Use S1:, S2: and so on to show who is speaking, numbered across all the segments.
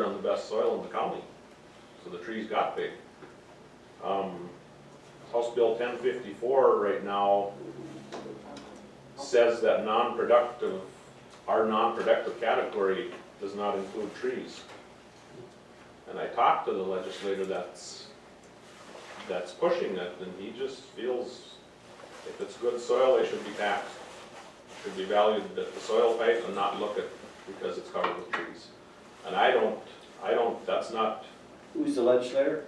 S1: the best soil in the county, so the trees got big. Um, House Bill ten fifty-four right now says that non-productive, our non-productive category does not include trees. And I talked to the legislator that's, that's pushing it, and he just feels if it's good soil, it should be taxed. It Should be valued at the soil rate and not look at, because it's covered with trees. And I don't, I don't, that's not
S2: Who's the legislator?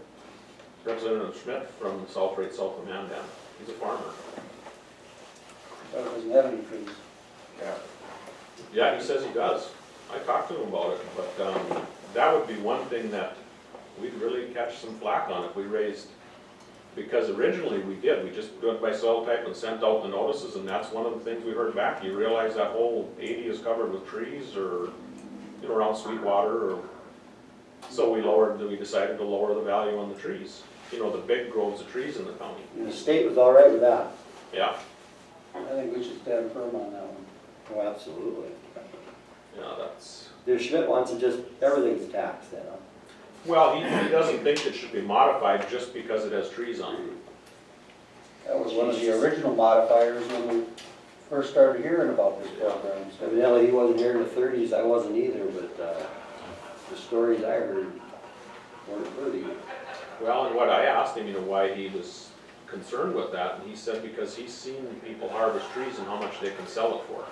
S1: Representative Schmidt from Salt Lake, South of Mandan. He's a farmer.
S2: Thought it doesn't have any trees.
S1: Yeah, he says he does. I talked to him about it, but, um, that would be one thing that we'd really catch some flack on if we raised, because originally we did, we just do it by soil type and sent out the notices, and that's one of the things we heard back. You realize that whole eighty is covered with trees or, you know, around Sweetwater or, so we lowered, we decided to lower the value on the trees, you know, the big groves of trees in the county.
S2: And the state was all right with that.
S1: Yeah,
S2: I think we should stand firm on that one. Oh, absolutely.
S1: yeah, that's.
S2: The Schmidt wants to just, everything's taxed then, huh?
S1: Well, he, he doesn't think it should be modified just because it has trees on it.
S3: That was one of the
S2: original modifiers when we first started hearing about this program. Evidently, he wasn't here in the thirties, I wasn't either, but, uh, the stories I heard weren't pretty.
S1: Well, and what I asked him, you know, why he was concerned with that, and he said because he's seen people harvest trees and how much they can sell it for.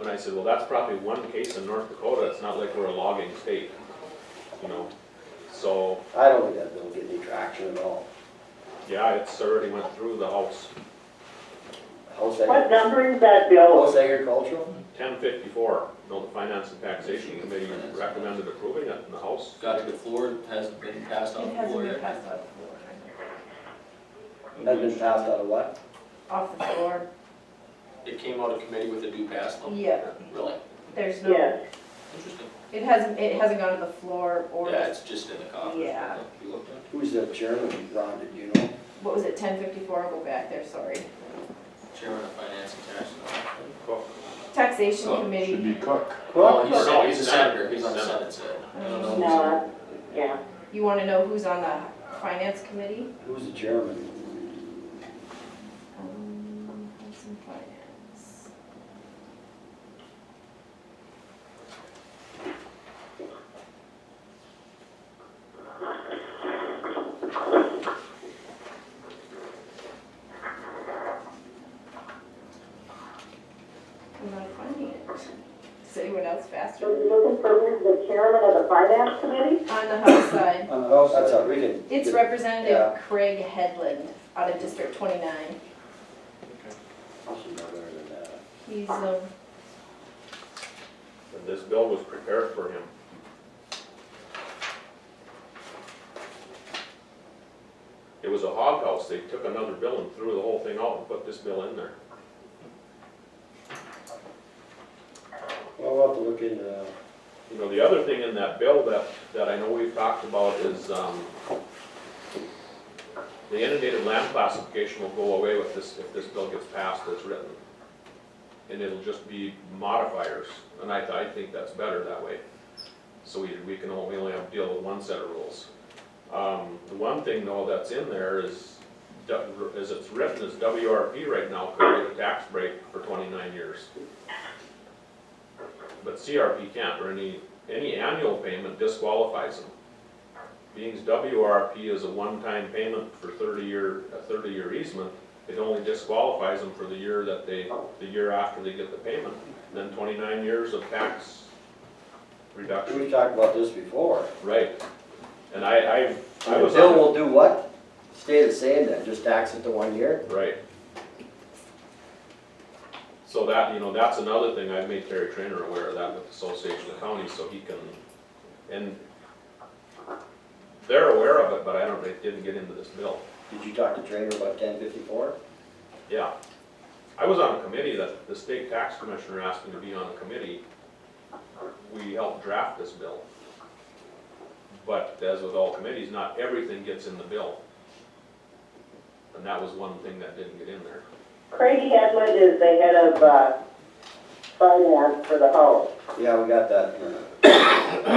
S1: And I said, well, that's probably one case in North Dakota, it's not like we're a logging state, you know? So,
S2: I don't think that bill get any traction at all.
S1: yeah, it's already went through the House,
S2: House
S4: What
S2: agricultural,
S4: number is that bill?
S2: house agricultural?
S1: ten fifty-four, you know, the Finance and Taxation Committee recommended approving it, and the House
S3: Got to the floor, it hasn't been passed on
S5: It
S3: the
S5: hasn't
S3: floor
S5: been
S3: yet.
S5: passed off the floor.
S2: Has been passed out of what?
S5: Off the floor?
S3: It came out of committee with a do pass on.
S5: Yeah,
S3: Really?
S5: there's no,
S4: Yes,
S3: Interesting.
S5: it hasn't, it hasn't gone to the floor or,
S3: Yeah, it's just in the coffers.
S5: Yeah.
S3: You looked at it.
S2: Who's the chairman, Ron, did you know?
S5: what was it, ten fifty-four, I'll go back there, sorry.
S3: Chairman of Finance and Tax.
S1: Cook,
S5: Taxation
S3: Oh,
S5: committee.
S3: Well,
S2: Cook?
S3: Oh, he's,
S1: no,
S3: he's a
S1: he's
S3: senator,
S1: not.
S3: he's on the
S1: He's
S3: Senate side. I don't know.
S4: no,
S3: who's on-
S4: yeah,
S5: You wanna know who's on the finance committee?
S2: Who's the chairman?
S5: Um, House and Finance. I'm not finding it. Is anyone else
S4: so
S5: faster?
S4: you're looking for who's the chairman of the finance committee?
S5: On the House side,
S2: On the house. Oh, That's all, we can.
S5: it's
S2: Yeah.
S5: Representative Craig Headland out of District twenty-nine.
S2: I should know better than that.
S5: He's, um,
S1: and this bill was prepared for him. It was a hog house, they took another bill and threw the whole thing out and put this bill in there.
S2: Well, we'll have to look into that.
S1: You know, the other thing in that bill that, that I know we've talked about is, um, the inundated land classification will go away with this, if this bill gets passed as written. And it'll just be modifiers, and I, I think that's better that way. So we, we can only, we only have to deal with one set of rules. Um, the one thing though that's in there is, du- as it's written, is WRP right now could get a tax break for twenty-nine years. But CRP can't, or any, any annual payment disqualifies them. Being's WRP is a one-time payment for thirty-year, a thirty-year easement, it only disqualifies them for the year that they, the year after they get the payment. Then twenty-nine years of tax reduction,
S2: We've talked about this before.
S1: right? And I, I, I
S2: The
S1: was.
S2: bill will do what? Stay the same then, just tax it to one year?
S1: Right. So that, you know, that's another thing, I've made Terry Trainer aware of that with the Association of Counties, so he can, and they're aware of it, but I don't, it didn't get into this bill,
S2: Did you talk to Trainer about ten fifty-four?
S1: yeah. I was on a committee that the state tax commissioner asked me to be on a committee. We helped draft this bill. But as with all committees, not everything gets in the bill. And that was one thing that didn't get in there.
S4: Craig Edmund is the head of, uh, finance for the House.
S2: Yeah, we got that. uh,